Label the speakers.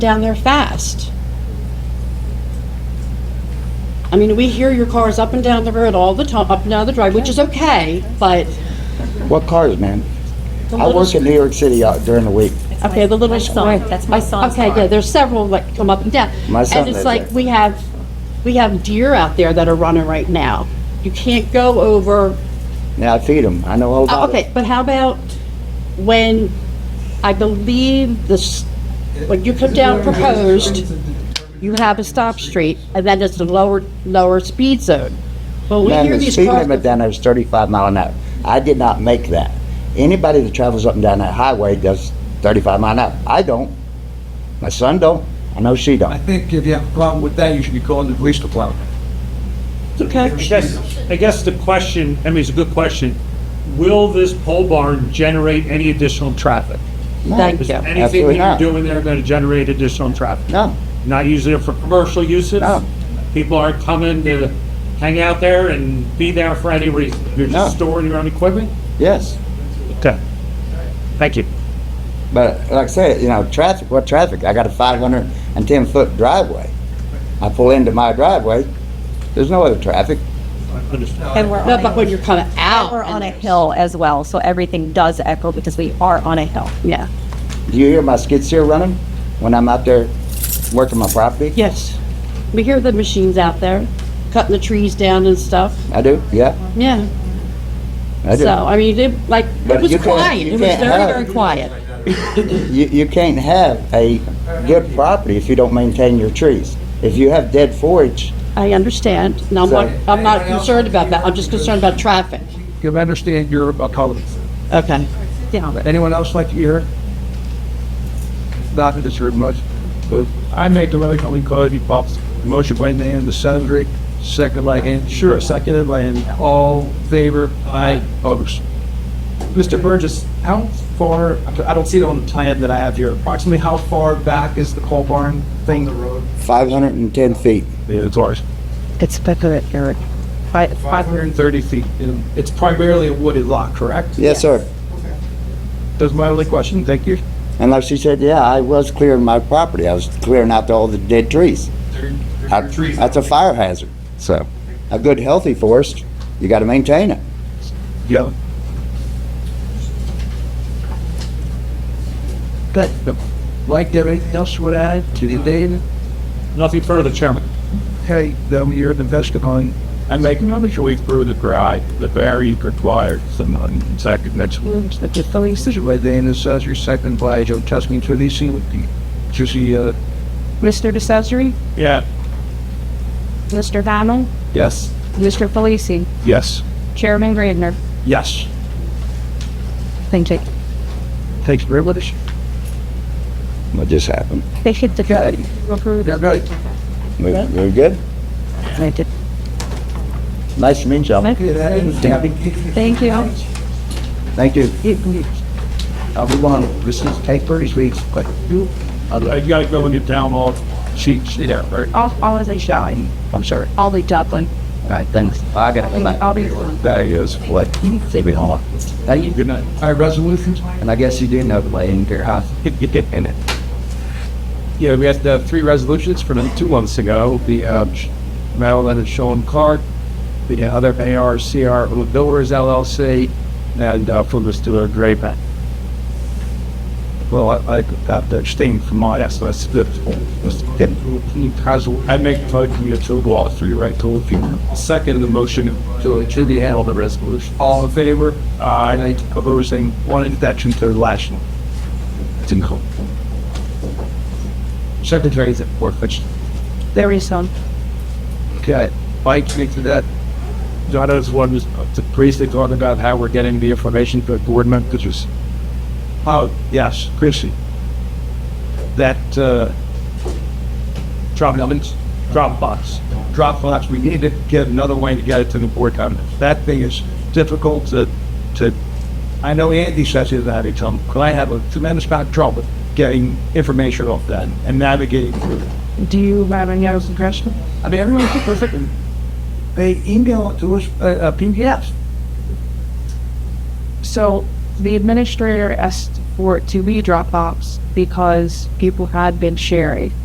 Speaker 1: down there fast. I mean, we hear your cars up and down the road all the time, up and down the drive, which is okay, but
Speaker 2: What cars, man?
Speaker 1: the
Speaker 2: I
Speaker 1: little,
Speaker 2: work in New York City out during the week.
Speaker 1: okay, the little sign.
Speaker 3: That's my son's
Speaker 1: Okay,
Speaker 3: car.
Speaker 1: yeah, there's several that come up and down.
Speaker 2: My son
Speaker 1: And it's
Speaker 2: lives
Speaker 1: like,
Speaker 2: there.
Speaker 1: we have, we have deer out there that are running right now. You can't go over
Speaker 2: Now I feed them. I know all
Speaker 1: Uh,
Speaker 2: about it.
Speaker 1: Okay, but how about when, I believe this, when you come down proposed, you have a stop street, and then it's the lower, lower speed zone. Well, we
Speaker 2: Man,
Speaker 1: hear
Speaker 2: the
Speaker 1: these
Speaker 2: speed limit
Speaker 1: cars,
Speaker 2: down there is 35 mile an hour. I did not make that. Anybody that travels up and down that highway does 35 mile an hour. I don't. My son don't. I know she
Speaker 4: I
Speaker 2: don't.
Speaker 4: think if you have a problem with that, you should be calling the police department.
Speaker 1: okay,
Speaker 5: I guess, I guess the question, I mean, it's a good question. Will this pole barn generate any additional traffic?
Speaker 1: thank
Speaker 5: Is
Speaker 1: you.
Speaker 5: anything
Speaker 2: Absolutely
Speaker 5: that you're
Speaker 2: not.
Speaker 5: doing there going to generate additional traffic?
Speaker 2: No.
Speaker 5: Not using it for commercial uses?
Speaker 2: No.
Speaker 5: People aren't coming to hang out there and be there for any reason? You're
Speaker 2: No.
Speaker 5: just storing your own equipment?
Speaker 2: Yes.
Speaker 5: Okay. Thank you.
Speaker 2: But like I said, you know, traffic, what traffic? I got a 510 foot driveway. I pull into my driveway. There's no other traffic.
Speaker 5: Understood.
Speaker 3: And we're
Speaker 1: No, but
Speaker 3: on
Speaker 1: when
Speaker 3: a,
Speaker 1: you're coming out.
Speaker 3: we're on
Speaker 1: and
Speaker 3: a
Speaker 1: there's-
Speaker 3: hill as well, so everything does echo because we are on a hill.
Speaker 1: Yeah,
Speaker 2: Do you hear my skid steer running when I'm out there working my property?
Speaker 1: yes. We hear the machines out there, cutting the trees down and stuff,
Speaker 2: I do. Yeah,
Speaker 1: yeah.
Speaker 2: I do.
Speaker 1: So, I mean, it, like, it
Speaker 2: But
Speaker 1: was
Speaker 2: you can't-
Speaker 1: quiet,
Speaker 2: you
Speaker 1: it was
Speaker 2: can't
Speaker 1: very,
Speaker 2: have-
Speaker 1: very quiet.
Speaker 2: You, you can't have a good property if you don't maintain your trees. If you have dead forage,
Speaker 1: I understand, and I'm not, I'm not concerned about that, I'm just concerned about traffic.
Speaker 4: You understand you're a color.
Speaker 1: Okay. Yeah,
Speaker 4: Anyone else like to hear? Not that it's heard much. but I make the motion, we call it, Bob. Motion by Nan, the senator, second by Ann. Sure, seconded by Ann. All favor? Aye. Opposed?
Speaker 6: Mr. Burgess, how far, I don't see it on the plan that I have here, approximately how far back is the coal barn thing? The road.
Speaker 2: 510 feet.
Speaker 4: Yeah, it's ours.
Speaker 3: It's speculative, Eric. Five,
Speaker 6: Five hundred and thirty feet. And It's primarily a wooded lot, correct?
Speaker 2: Yes, sir.
Speaker 4: That's my only question. Thank you.
Speaker 2: And like she said, yeah, I was clearing my property. I was clearing out all the dead trees. I- That's a fire hazard. So a good healthy forest, you got to maintain it.
Speaker 4: Yeah. But, like everything else would add to the data,
Speaker 5: Nothing further, Chairman.
Speaker 4: hey, them you're the best going.
Speaker 7: I make another choice through the drive, the very required, someone second next
Speaker 4: That's a funny decision by Dan, it says your second by Joe Tuscan to the scene with the, to the, uh,
Speaker 3: Mr. DeCesare,
Speaker 7: Yeah,
Speaker 3: Mr. Diamond,
Speaker 4: yes,
Speaker 3: Mr. Felici,
Speaker 7: yes,
Speaker 3: Chairman Gardner.
Speaker 7: yes.
Speaker 3: Thank you.
Speaker 4: takes privilege.
Speaker 2: What just happened?
Speaker 3: They hit the
Speaker 4: Okay.
Speaker 3: approve
Speaker 4: Yeah, right.
Speaker 2: We, we're good? Nice to meet y'all.
Speaker 4: Good, eh?
Speaker 3: Thank you.
Speaker 2: Thank you.
Speaker 4: I'll be one, this is take thirty weeks, but you,
Speaker 7: I gotta go and get down all sheets there, right?
Speaker 3: All, all as they shall.
Speaker 4: I'm sorry.
Speaker 3: I'll be Dublin.
Speaker 4: All right, thanks. I got
Speaker 3: I'll be.
Speaker 4: That is what, save it all. Thank you.
Speaker 7: Good night.
Speaker 4: All right, resolutions? And I guess you do know the way in your house.
Speaker 7: in it. Yeah, we had uh, three resolutions from two months ago, the uh, Maryland and Sean Clark, the other ARCR Builders LLC, and uh, for Mr. Draper.
Speaker 4: Well, I, I have to abstain from my, that's, that's, that's.
Speaker 7: I make a motion to approve all three, right, to approve. Second, the motion to, to be held the resolution.
Speaker 4: All in favor?
Speaker 7: Aye.
Speaker 4: Opposing, one exception to the last one. It's in code. Secretary's at four, which,
Speaker 3: There is some.
Speaker 4: okay, Mike, make to that.
Speaker 7: John's one was
Speaker 4: uh,
Speaker 7: to briefly talk about how we're getting the information for board members.
Speaker 4: Oh, yes, Chrissy. That, uh,
Speaker 7: Drop elements, drop box.
Speaker 4: Dropbox, we need to get another way to get it to the board comments. That thing is difficult to, to, I know Andy says he's had it, um, 'cause I have a tremendous amount of trouble getting information off that and navigating through it.
Speaker 3: Do you have any other suggestions?
Speaker 4: I mean, everyone's perfect. and They email it to us, uh, uh, PDFs.
Speaker 3: So the administrator asked
Speaker 8: for it to be Dropbox because people had been sharing.